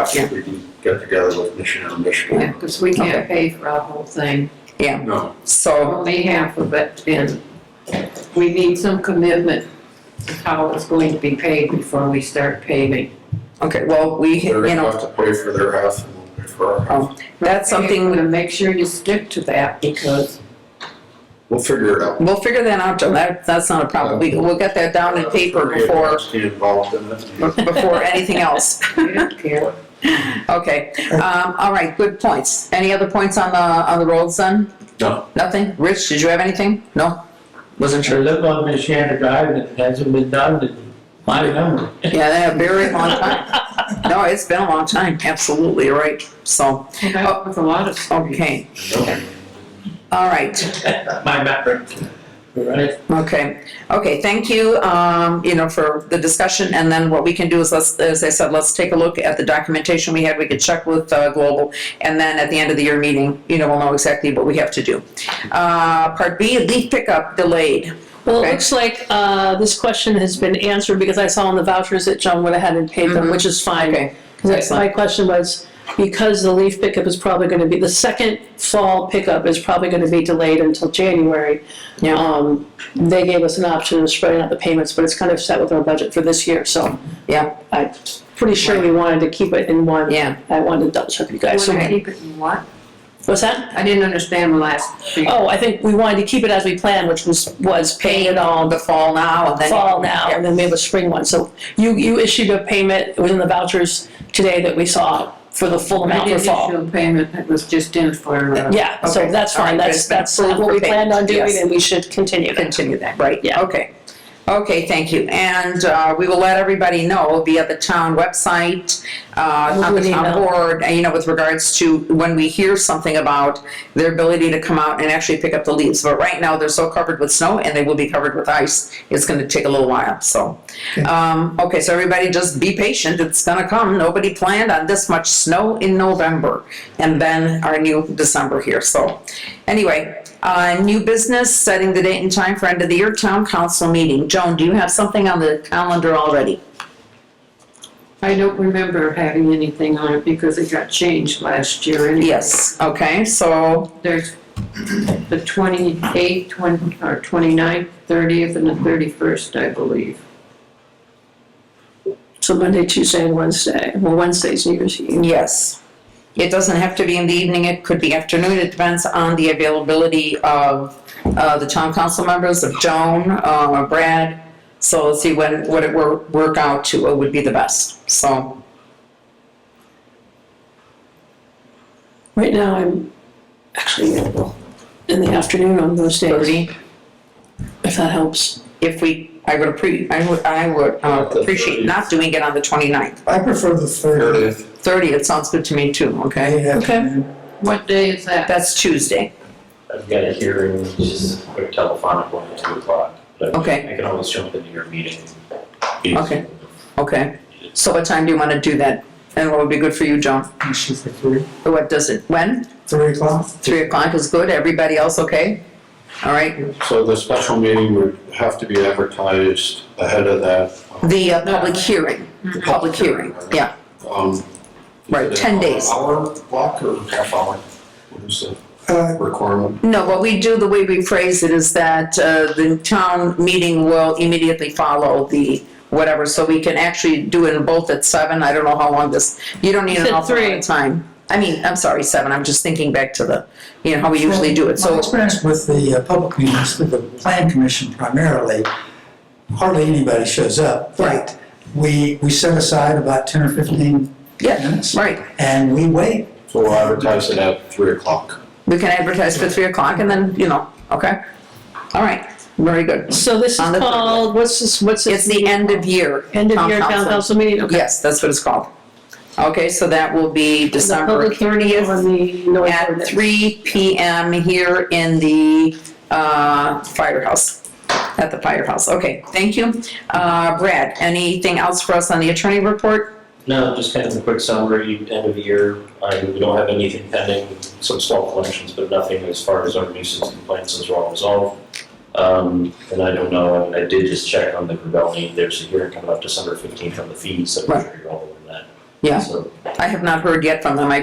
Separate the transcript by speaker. Speaker 1: I think we can get together with Michigan and Michigan.
Speaker 2: because we can't pay for our whole thing,
Speaker 1: No,
Speaker 3: So,
Speaker 2: only half of it, and we need some commitment of how it's going to be paid before we start paving.
Speaker 3: okay, well, we,
Speaker 1: they're
Speaker 3: you
Speaker 1: gonna
Speaker 3: know,
Speaker 1: have to pay for their half and we'll pay for our half.
Speaker 3: that's
Speaker 2: We're
Speaker 3: something,
Speaker 2: gonna make sure you stick to that, because
Speaker 1: We'll figure it out.
Speaker 3: we'll figure that out, Joe, that, that's not a problem, we, we'll get that down in paper
Speaker 1: Forget
Speaker 3: before,
Speaker 1: what's involved in it.
Speaker 3: before anything else,
Speaker 2: we don't care.
Speaker 3: okay. Um, all right, good points, any other points on the, on the rolls then?
Speaker 1: No.
Speaker 3: Nothing, Rich, did you have anything? No? Wasn't
Speaker 4: I
Speaker 3: sure,
Speaker 4: live on Michiana Drive and it hasn't been done in my memory.
Speaker 3: yeah, they have very long time, no, it's been a long time, absolutely, you're right, so,
Speaker 2: Well, that was Oh, a lot of stories.
Speaker 3: okay,
Speaker 1: No.
Speaker 3: all right.
Speaker 4: My memory. Right?
Speaker 3: Okay, okay, thank you, um, you know, for the discussion, and then what we can do is, let's, as I said, let's take a look at the documentation we had, we could check with, uh, Global, and then at the end of the year meeting, you know, we'll know exactly what we have to do. Uh, part B, leaf pickup delayed,
Speaker 5: Well,
Speaker 3: Okay.
Speaker 5: it looks like uh, this question has been answered because I saw on the vouchers that John went ahead and paid them, which is fine.
Speaker 3: Mm-hmm. okay,
Speaker 5: 'Cause that's-
Speaker 3: Excellent.
Speaker 5: My question was, because the leaf pickup is probably going to be, the second fall pickup is probably going to be delayed until January.
Speaker 3: Yeah.
Speaker 5: Um, They gave us an option of spreading out the payments, but it's kind of set with our budget for this year, so.
Speaker 3: Yeah.
Speaker 5: I'm pretty sure we wanted to keep it in one.
Speaker 3: Yeah.
Speaker 5: I wanted to double check with you
Speaker 2: You
Speaker 5: guys.
Speaker 2: wanna
Speaker 5: So-
Speaker 2: keep it in what?
Speaker 5: What's that?
Speaker 2: I didn't understand the last thing.
Speaker 5: Oh, I think we wanted to keep it as we planned, which was, was paying it all,
Speaker 3: the fall now, and then.
Speaker 5: fall now, and then we have a spring one. So you, you issued a payment, it was in the vouchers today that we saw for the full
Speaker 2: I
Speaker 5: amount for
Speaker 2: didn't issue
Speaker 5: fall.
Speaker 2: a payment, it was just in for, uh,
Speaker 5: Yeah, so
Speaker 3: Okay.
Speaker 5: that's
Speaker 3: All right,
Speaker 5: fine,
Speaker 3: good.
Speaker 5: that's,
Speaker 3: It's been
Speaker 5: that's
Speaker 3: approved
Speaker 5: what
Speaker 3: for
Speaker 5: we planned on
Speaker 3: payment.
Speaker 5: doing, and we should continue that.
Speaker 3: continue that, right?
Speaker 5: Yeah.
Speaker 3: Okay. Okay, thank you. And uh, we will let everybody know via the town website, uh,
Speaker 5: We'll
Speaker 3: on the
Speaker 5: do an
Speaker 3: town
Speaker 5: email.
Speaker 3: board, and, you know, with regards to when we hear something about their ability to come out and actually pick up the leaves. But right now, they're so covered with snow and they will be covered with ice. It's gonna take a little while, so. Um, Okay, so everybody just be patient. It's gonna come. Nobody planned on this much snow in November. And then our new December here, so. Anyway, uh, new business, setting the date and time for end of the year town council meeting. Joan, do you have something on the calendar already?
Speaker 2: I don't remember having anything on it because it got changed last year anyway.
Speaker 3: Yes, okay, so,
Speaker 2: There's the 28th, 20 or 29th, 30th, and the 31st, I believe.
Speaker 5: So Monday, Tuesday, and Wednesday, well, Wednesday's New Year's Eve.
Speaker 3: yes. It doesn't have to be in the evening, it could be afternoon, it depends on the availability of uh, the town council members, of Joan, uh, Brad. So let's see when, what it wor- work out to, what would be the best, so.
Speaker 5: Right now, I'm actually available in the afternoon on those days,
Speaker 3: Thirty,
Speaker 5: if that helps.
Speaker 3: if we, I would appre, I would, I would uh, appreciate not doing it on the 29th.
Speaker 6: I prefer the
Speaker 1: Here it
Speaker 6: third.
Speaker 1: is.
Speaker 3: Thirty, it sounds good to me too, okay?
Speaker 5: Okay.
Speaker 2: What day is that?
Speaker 3: That's Tuesday,
Speaker 7: I've got a hearing, just a quick telephonic one at two o'clock. but
Speaker 3: Okay.
Speaker 7: I can always jump into your meeting.
Speaker 3: Okay. okay. So what time do you want to do that? And what would be good for you, Joan?
Speaker 6: You shoot for three,
Speaker 3: What does it, when?
Speaker 6: three o'clock?
Speaker 3: Three o'clock is good, everybody else okay? All right,
Speaker 1: So the special meeting would have to be advertised ahead of that.
Speaker 3: the uh, public hearing, the public hearing, yeah,
Speaker 1: Um,
Speaker 3: right,
Speaker 1: is it
Speaker 3: ten
Speaker 1: an
Speaker 3: days.
Speaker 1: Hour block or half hour? What is the
Speaker 6: Uh,
Speaker 1: requirement?
Speaker 3: No, what we do, the way we phrase it is that uh, the town meeting will immediately follow the whatever, so we can actually do it in both at seven, I don't know how long this, you don't need
Speaker 5: You
Speaker 3: an
Speaker 5: said
Speaker 3: awful lot
Speaker 5: three.
Speaker 3: of time. I mean, I'm sorry, seven, I'm just thinking back to the, you know, how we usually do it,
Speaker 6: My
Speaker 3: so,
Speaker 6: experience with the uh, public meetings, with the plan commission primarily, hardly anybody shows up.
Speaker 3: Right.
Speaker 6: We, we set aside about ten or fifteen
Speaker 3: yeah,
Speaker 6: minutes
Speaker 3: right.
Speaker 6: and we wait.
Speaker 1: So we'll advertise it at three o'clock.
Speaker 3: We can advertise for three o'clock and then, you know, okay? All right, very good.
Speaker 5: So this is
Speaker 3: On the third.
Speaker 5: called, what's this, what's
Speaker 3: It's
Speaker 5: this?
Speaker 3: the end of year.
Speaker 5: End of year town council meeting, okay.
Speaker 3: Yes, that's what it's called. Okay, so that will be December
Speaker 5: The public hearing
Speaker 3: thirtieth.
Speaker 5: on the noise
Speaker 3: at
Speaker 5: ordinance.
Speaker 3: three PM here in the uh, firehouse, at the firehouse. Okay, thank you. Uh, Brad, anything else for us on the attorney report?
Speaker 7: No, just kind of a quick summary, end of the year, I, we don't have anything pending, some small collections, but nothing as far as our nuisance complaints is all resolved. Um, and I don't know, and I did just check on the rebellion, there's a hearing coming up December fifteenth on the fees, so I'm sure you're all aware of that.
Speaker 3: Yeah.
Speaker 7: So-
Speaker 3: I have not heard yet from them. I